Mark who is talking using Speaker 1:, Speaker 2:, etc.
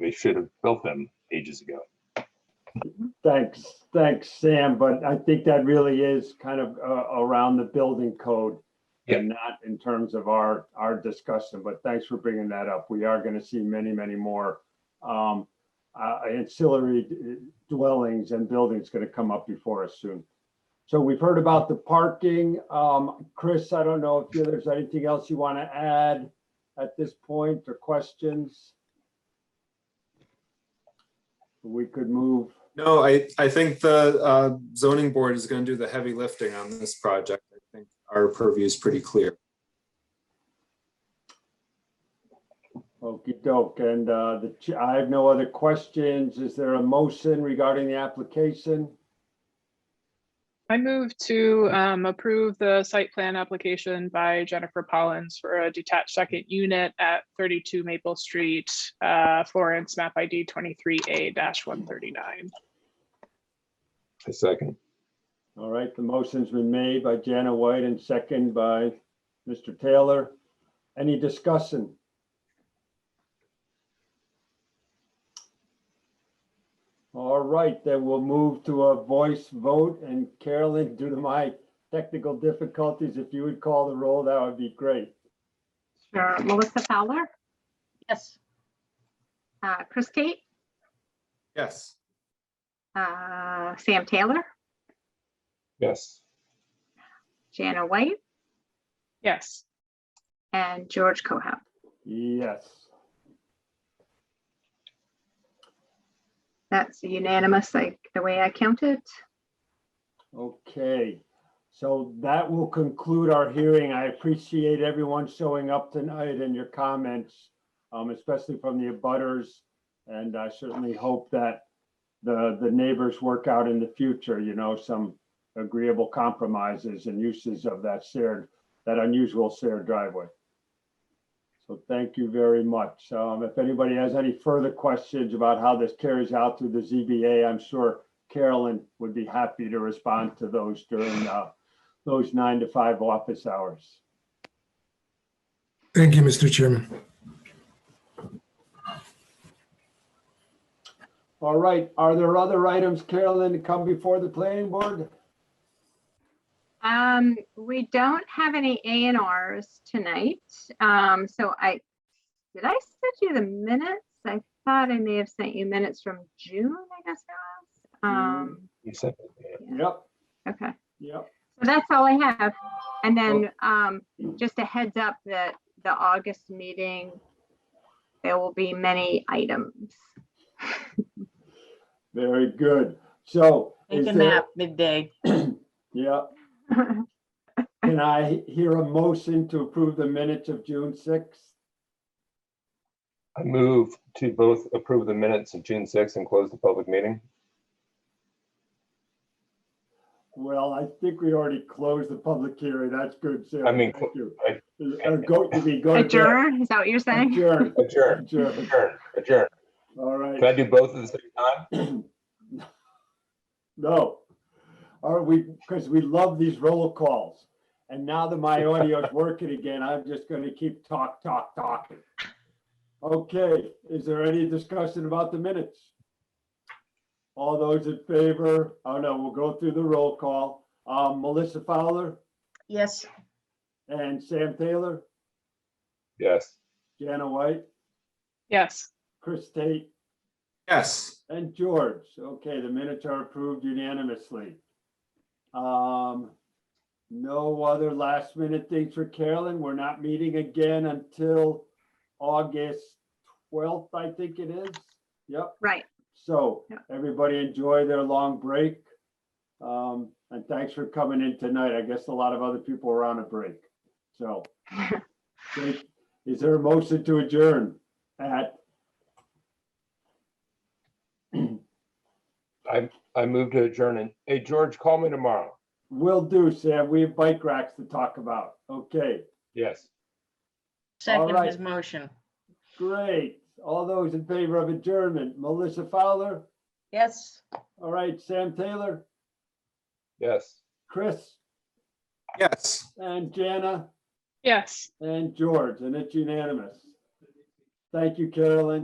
Speaker 1: They should have built them ages ago.
Speaker 2: Thanks, thanks, Sam, but I think that really is kind of uh, around the building code and not in terms of our, our discussion, but thanks for bringing that up. We are going to see many, many more um, uh, ancillary dwellings and buildings going to come up before us soon. So we've heard about the parking. Um, Chris, I don't know if there's anything else you want to add at this point or questions? We could move
Speaker 3: No, I, I think the uh, zoning board is going to do the heavy lifting on this project. I think our purview is pretty clear.
Speaker 2: Okey doke, and uh, the, ch- I have no other questions. Is there a motion regarding the application?
Speaker 4: I move to um, approve the site plan application by Jennifer Collins for a detached second unit at 32 Maple Street, uh, Florence, map ID 23A-139.
Speaker 1: A second.
Speaker 2: All right, the motion's been made by Jana White and second by Mr. Taylor. Any discussion? All right, then we'll move to a voice vote, and Carolyn, due to my technical difficulties, if you would call the roll, that would be great.
Speaker 5: Sure. Melissa Fowler,
Speaker 6: Yes.
Speaker 5: uh, Chris Kate,
Speaker 3: Yes,
Speaker 5: uh, Sam Taylor,
Speaker 1: Yes.
Speaker 5: Jana White,
Speaker 4: Yes.
Speaker 5: and George Kohout.
Speaker 2: Yes,
Speaker 5: That's unanimous, like the way I counted.
Speaker 2: Okay, so that will conclude our hearing. I appreciate everyone showing up tonight and your comments, um, especially from the abutters. And I certainly hope that the, the neighbors work out in the future, you know, some agreeable compromises and uses of that shared, that unusual shared driveway. So thank you very much. Um, if anybody has any further questions about how this carries out through the ZBA, I'm sure Carolyn would be happy to respond to those during uh, those nine to five office hours.
Speaker 7: Thank you, Mr. Chairman.
Speaker 2: All right, are there other items, Carolyn, to come before the planning board?
Speaker 5: Um, we don't have any A and Rs tonight, um, so I, did I send you the minutes? I thought I may have sent you minutes from June, I guess it was. Um,
Speaker 1: You said it.
Speaker 2: Yep,
Speaker 5: okay.
Speaker 2: yep.
Speaker 5: So that's all I have. And then um, just a heads up that the August meeting, there will be many items.
Speaker 2: Very good. So is
Speaker 6: Take a
Speaker 2: there,
Speaker 6: nap midday.
Speaker 2: yeah, can I hear a motion to approve the minutes of June sixth?
Speaker 1: I move to both approve the minutes of June 6th and close the public meeting.
Speaker 2: Well, I think we already closed the public hearing. That's good, Sarah.
Speaker 1: I mean,
Speaker 2: Thank you.
Speaker 1: I-
Speaker 2: Uh, Go, you mean go to bed.
Speaker 5: Adjourn, is that what you're saying?
Speaker 2: Adjourn,
Speaker 1: Adjourn,
Speaker 2: adjourn.
Speaker 1: adjourn, adjourn.
Speaker 2: All right.
Speaker 1: Can I do both at the same time?
Speaker 2: No. Or we, because we love these roll calls. And now that my audio's working again, I'm just going to keep talk, talk, talking. Okay, is there any discussion about the minutes? All those in favor? Oh, no, we'll go through the roll call. Um, Melissa Fowler
Speaker 6: Yes.
Speaker 2: and Sam Taylor,
Speaker 1: Yes.
Speaker 2: Jana White,
Speaker 4: Yes.
Speaker 2: Chris Tate,
Speaker 3: yes.
Speaker 2: And George, okay, the minutes are approved unanimously. Um, no other last minute things for Carolyn. We're not meeting again until August twelfth, I think it is. Yep,
Speaker 5: Right,
Speaker 2: so
Speaker 5: Yeah.
Speaker 2: everybody enjoy their long break. Um, and thanks for coming in tonight. I guess a lot of other people are on a break, so. Jake, Is there a motion to adjourn at,
Speaker 1: I move to adjourn. And hey, George, call me tomorrow.
Speaker 2: will do, Sam, we have bike racks to talk about. Okay.
Speaker 1: Yes.
Speaker 6: Second
Speaker 2: right.
Speaker 6: his motion.
Speaker 2: Great. All those in favor of adjournment, Melissa Fowler,
Speaker 6: Yes.
Speaker 2: all right, Sam Taylor,
Speaker 1: Yes.
Speaker 2: Chris,
Speaker 3: Yes.
Speaker 2: and Jana,
Speaker 4: Yes.
Speaker 2: and George, and it's unanimous. Thank you, Carolyn.